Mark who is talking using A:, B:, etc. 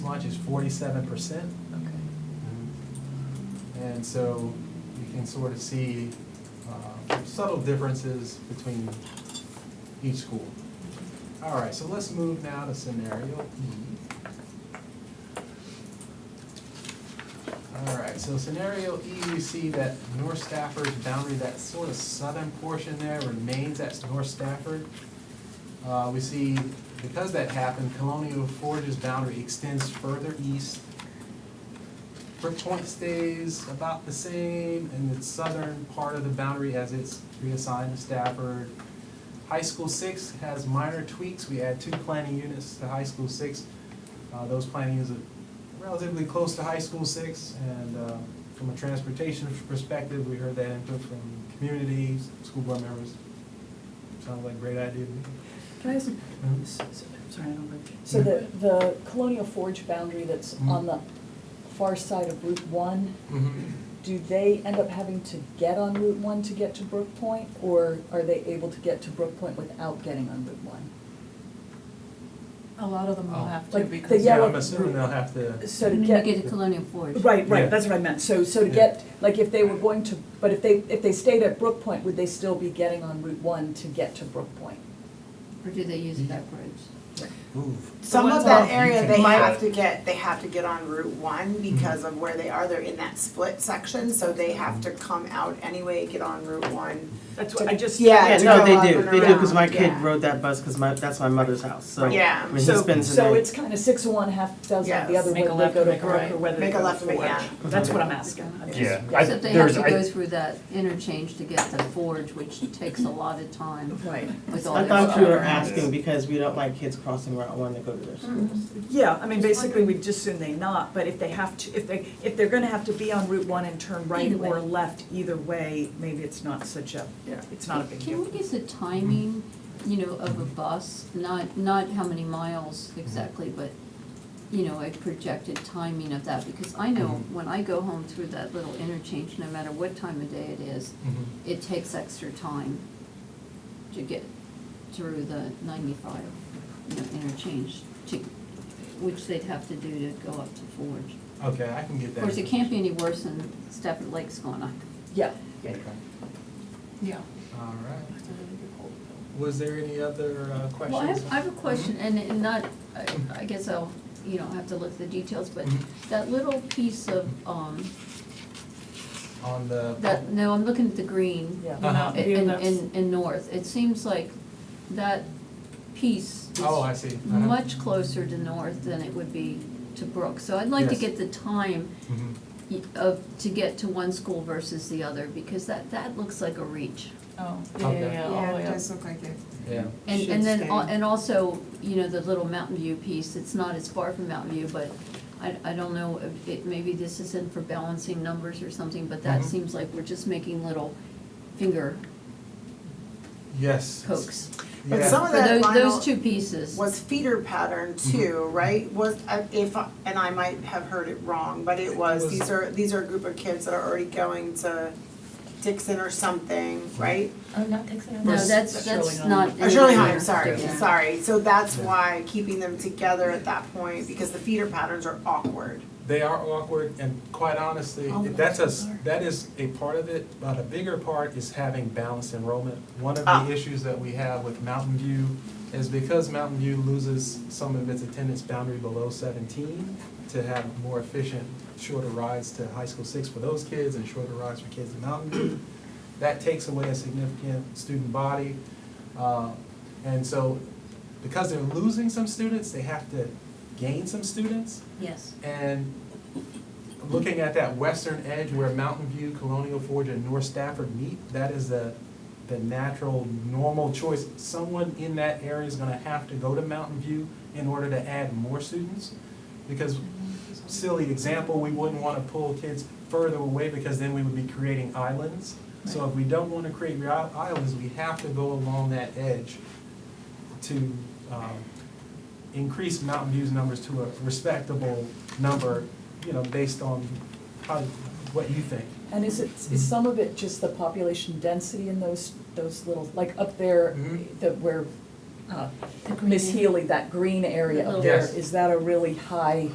A: much is forty-seven percent.
B: Okay.
A: And so you can sort of see uh, subtle differences between each school. All right, so let's move now to scenario E. All right, so scenario E, you see that North Stafford's boundary, that sort of southern portion there remains, that's North Stafford. Uh, We see, because that happened, Colonial Forge's boundary extends further east. Brook Point stays about the same in the southern part of the boundary as it's reassigned to Stafford. High School Six has minor tweaks, we add two planning units to High School Six. Uh, those planning units are relatively close to High School Six, and, uh, from a transportation perspective, we heard that input from communities, school board members. Sounds like a great idea to me.
C: Can I ask,
A: Mhm.
C: s- s- sorry, I don't like to-
B: So the, the Colonial Forge boundary that's
A: Mhm.
B: on the far side of Route One, do they end up having to get on Route One to get to Brook Point? Or are they able to get to Brook Point without getting on Route One?
C: A lot of them
A: Oh.
C: will have to
B: Like, the
C: because.
A: Yeah,
B: yellow-
A: I'm assuming they'll have to,
B: So to
D: And
B: get.
D: You get a colonial forge.
B: Right,
A: Yeah.
B: right, that's what I meant. So, so to
A: Yeah.
B: get, like, if they were going to, but if they, if they stayed at Brook Point, would they still be getting on Route One to get to Brook Point?
D: Or do they use backwards?
A: move.
C: The
E: Some of
C: ones
E: that
C: on-
E: area, they
C: Might-
E: have to get, they have to get on Route one because of where they are, they're in that split section, so they have to come out anyway, get on Route one.
F: That's what I just.
E: Yeah,
G: Yeah,
E: to
G: no,
E: go
G: they
E: up
G: do,
E: and
G: they do, because my
E: around,
G: kid
E: yeah.
G: rode that bus, because my, that's my mother's house, so.
E: Yeah.
G: When he
F: So-
G: spends the
B: So
G: night.
B: it's kind of six of one, half dozen of the
E: Yes.
B: other way,
F: Make
B: they
F: a left,
B: go
F: or
B: to
F: make a right,
B: Brook
F: or
B: or.
F: whether they
E: Make a
F: go
E: left and make-
F: forward.
E: yeah.
F: That's what I'm asking. I'm just-
H: Yeah, I,
D: Except they have
H: there's,
D: to
H: I,
D: go through that interchange to get the forge, which takes a lot of time
B: Right.
D: with all
G: I
D: their
G: thought you were
D: stuff.
G: asking because we don't like kids crossing Route One to go to their schools.
F: Yeah, I mean, basically, we just assume they not, but if they have to, if they, if they're gonna have to be on Route one and turn right
D: Either way.
F: or left, either way, maybe it's not such a, it's not a big
D: Can
F: deal.
D: we get the timing, you know, of a bus, not, not how many miles exactly, but, you know, a projected timing of that? Because I know
H: Mm-hmm.
D: when I go home through that little interchange, no matter what time of day it is, it takes extra time to get through the ninety-five, you know, interchange to, which they'd have to do to go up to Forge.
A: Okay, I can get
D: Of
A: that.
D: course, it can't be any worse than Stafford Lake's going up.
B: Yeah,
A: Okay,
C: Yeah.
A: all right. Was there any other uh, questions?
D: Well, I have, I have a question, and and not, I- I guess I'll, you know, have to look at the details, but
A: Mhm.
D: that little piece of, um,
A: On the.
D: that, no, I'm looking at the green
B: yeah.
A: Uh-huh.
D: in, in, in- in north. It seems like that piece
A: Oh,
D: is
A: I see. Uh-huh.
D: much closer to north than it would be to Brook. So I'd like to
A: Yes.
D: get the time
A: Mhm.
D: y- of, to get to one school versus the other, because that, that looks like a reach.
C: Oh, yeah,
A: Okay.
C: yeah, yeah, all the way up.
E: look like it.
A: Yeah,
D: And,
E: should
D: and then,
E: stay.
D: al- and also, you know, the little Mountain View piece, it's not as far from Mountain View, but I, I don't know, if it, maybe this isn't for balancing numbers or something, but that
A: Mhm.
D: seems like we're just making little finger
A: yes.
D: pokes.
E: But
A: Yeah.
E: some of
D: For
E: that
D: those, those
E: vinyl
D: two pieces.
E: was feeder pattern too, right? Was, I- if, I- and I might have heard it wrong, but it was,
A: was-
E: these are, these are a group of kids that are already going to Dixon or something, right?
C: Oh, not Dixon.
D: No, that's,
C: Shirley
D: that's
C: Home.
D: not.
E: Or Shirley
D: anywhere.
E: High, I'm sorry,
D: Yeah.
E: sorry. So that's
A: Yeah.
E: why keeping them together at that point, because the feeder patterns are awkward.
A: They are awkward and quite honestly,
C: All the
A: that's a,
C: classes are.
A: that is a part of it, but a bigger part is having balanced enrollment. One of
E: Ah.
A: the issues that we have with Mountain View is because Mountain View loses some of its attendance boundary below seventeen to have more efficient, shorter rides to high school six for those kids and shorter rides for kids in Mountain View. That takes away a significant student body. Uh, And so because they're losing some students, they have to gain some students.
D: Yes.
A: And looking at that western edge where Mountain View, Colonial Forge, and North Stafford meet, that is the, the natural, normal choice. Someone in that area is gonna have to go to Mountain View in order to add more students. Because silly example, we wouldn't wanna pull kids further away because then we would be creating islands. So if we don't wanna create ri- islands, we have to go along that edge to um, increase Mountain View's numbers to a respectable number, you know, based on how, what you think.
B: And is it, is some of it just the population density in those, those little, like up there,
A: Mhm.
B: the, where, uh,
C: The green
B: Miss Healy, that green area up
D: Little-
B: there,
A: Yes.
B: is that a really high?